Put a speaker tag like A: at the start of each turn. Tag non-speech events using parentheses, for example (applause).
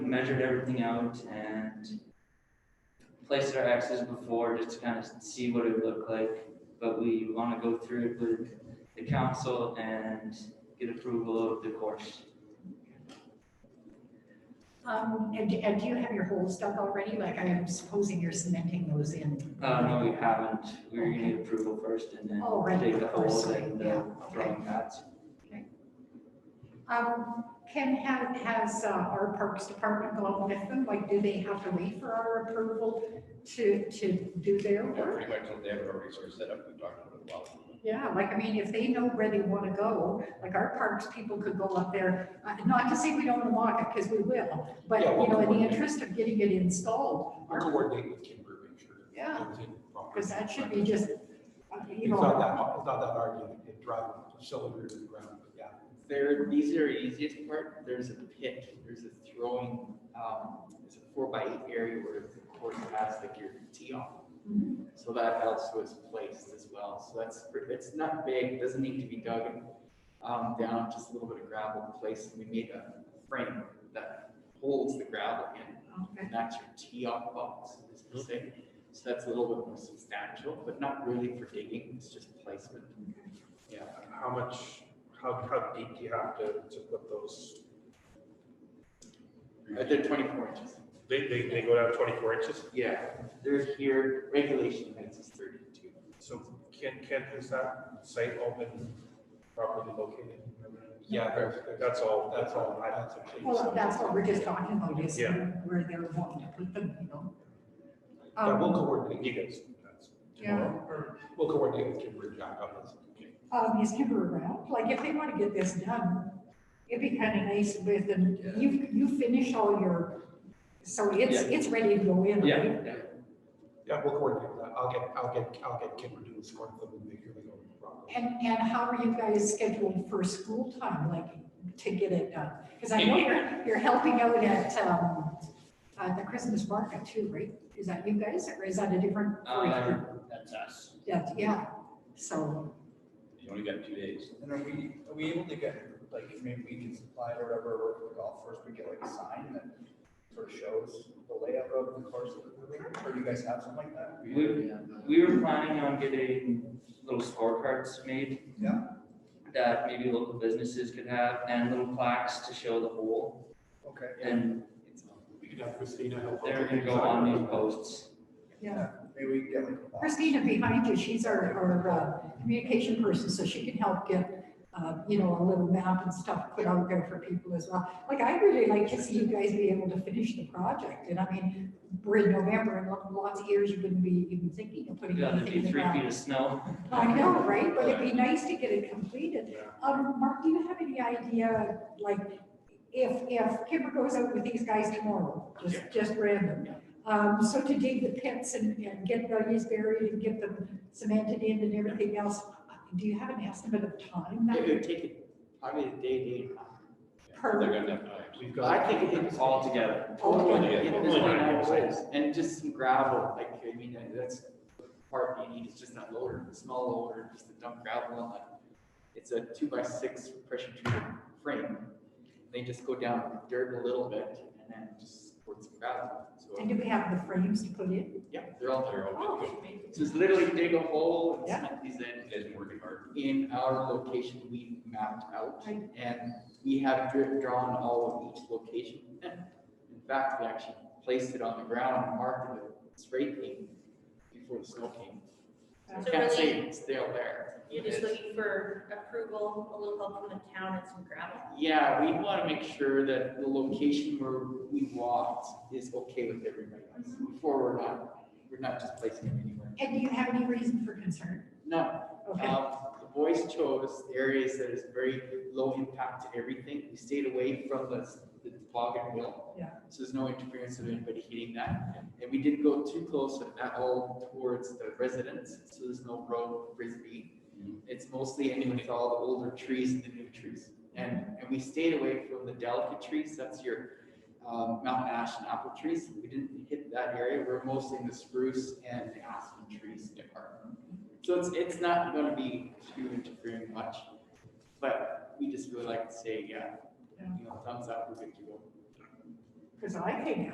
A: measured everything out and placed our X's before just to kind of see what it would look like. But we want to go through it with the council and get approval of the course.
B: Um, and, and do you have your holes dug already? Like, I'm supposing you're cementing those in.
A: Uh, no, we haven't. We're gonna need approval first and then
B: Oh, right,
A: dig the
B: of course,
A: holes and
B: yeah,
A: the
B: okay.
A: throwing pads.
B: Um, Ken, ha- has, uh, our Parks Department gone with them? Like, do they have to wait for our approval to, to do their
C: Yeah,
B: work?
C: Pretty much, they have our resource set up, we talked about it a while.
B: Yeah, like, I mean, if they know where they want to go, like our parks people could go up there, uh, not to say we don't want to walk it, because we will, but,
C: Yeah,
B: you
C: we'll
B: know, in the
C: coordinate.
B: interest of getting it installed,
D: I'll coordinate with Kimber, make sure.
B: Yeah. because
D: Because
B: that should be just, uh, you
D: It's not
B: know,
D: that, it's not that hard, you can drive a cylinder to the ground, but yeah.
E: There, these are easiest part, there's a pit, there's a throwing, um, it's a four by eight area where the course has like your tee off.
B: Mhm.
E: So that also is placed as well, so that's, pre- it's not big, doesn't need to be dug, um, down, just a little bit of gravel placed, and we made a frame that holds the gravel in,
B: okay.
E: and that's your tee off box, is to say. So that's a little bit more substantial, but not really for digging, it's just placement. Yeah.
F: How much, how, how deep do you have to, to put those?
E: I did twenty-four inches.
F: They, they, they go down twenty-four inches?
E: Yeah, they're here, regulation height is thirty-two.
F: So can, can, is that site open, properly located?
D: Yeah, there's,
F: That's all,
D: that's all,
F: I-
D: that's a change.
B: Well, that's what we're just talking about, is
F: Yeah.
B: where they're wanting to put them, you know?
D: Yeah, we'll
B: Um,
D: coordinate.
F: You guys, that's
B: Yeah,
F: tomorrow, or
D: We'll coordinate with Kimber, Jack, on this.
B: um, is Kimber around? Like, if they want to get this done, it'd be kind of nice with, them. you, you finish all your, so it's,
A: Yeah.
B: it's ready to go in, right?
A: Yeah,
D: Yeah, we'll coordinate that. I'll get, I'll get, I'll get Kimber to escort them and make sure they go properly.
B: And, and how are you guys scheduled for school time, like, to get it done? Because I
A: (laughs)
B: know you're, you're helping out at, um, uh, the Christmas market too, right? Is that you guys, or is that a different?
A: Uh, that's us.
B: Yeah, yeah, so,
C: You only got two days.
G: And are we, are we able to get, like, maybe we can supply it or whatever, or for the golf course, we get like a sign that sort of shows the layout of the course? Or do you guys have something like that?
A: We, we were planning on getting little scorecards made.
G: Yeah.
A: That maybe local businesses could have and little plaques to show the hole.
G: Okay.
A: And
D: We could have Christina help.
A: they're gonna go on these posts.
B: yeah.
G: Maybe we can get like. a box.
B: Christina behind you, she's our, our uh, communication person, so she can help get, uh, you know, a little map and stuff put out there for people as well. Like, I really like to see you guys be able to finish the project, and I mean, we're in November, and lo- lots of years you wouldn't be even thinking of putting
A: Yeah, there'd
B: anything
A: be
B: in the
A: three feet
B: ground.
A: of snow.
B: I know, right, but it'd be nice to get it completed.
F: Yeah.
B: Um, Mark, do you have any idea, like, if, if Kipper goes out with these guys tomorrow, just, just random? Um, so to dig the pits and, and get those buried and get them cemented in and everything else, do you have an estimate of time? that
E: It would take it probably a day, day and a half.
B: Per-
C: They're gonna have time.
F: we've
E: But
F: got.
E: I think it's all together.
B: Totally.
E: Yeah,
F: Yeah,
E: this
F: totally.
E: one I was, And just some gravel, like, I mean, uh, that's the part you need, is just that loader, the small loader, just to dump gravel on that. It's a two by six pressure treated frame. They just go down with dirt a little bit and then just pour some gravel.
B: And
E: So,
B: do we have the frames to put in?
E: yeah, they're all there.
C: They're all good.
E: Just literally dig a hole and
B: Oh. Yeah.
E: cement these in.
C: You guys been working hard.
E: in our location we mapped out.
B: Right.
E: And we have dri- drawn all of each location. And In fact, we actually placed it on the ground and marked it with spray paint before the snow came. So I
H: So
E: can't say
H: really-
E: it's still there.
H: You're just
E: It's-
H: looking for approval, a little help from the town and some gravel.
E: Yeah, we want to make sure that the location where we walked is okay with everybody else. Before we're not, we're not just placing it anywhere.
B: And do you have any reason for concern?
E: No,
B: Okay,
E: Um, the boys chose areas that is very low impact to everything. We stayed away from the, the fog and wheel.
B: Yeah.
E: So there's no interference of anybody hitting that. And we didn't go too close at all towards the residents, so there's no road frisbee. It's mostly in with all the older trees and the new trees. And, and we stayed away from the delicate trees, that's your, um, mountain ash and apple trees. We didn't hit that area. We're mostly in the spruce and the aspen trees department. So it's, it's not gonna be too interfering much, but we just really like to say, yeah,
B: Yeah.
E: you know, thumbs up, we're good to go.
B: Because I think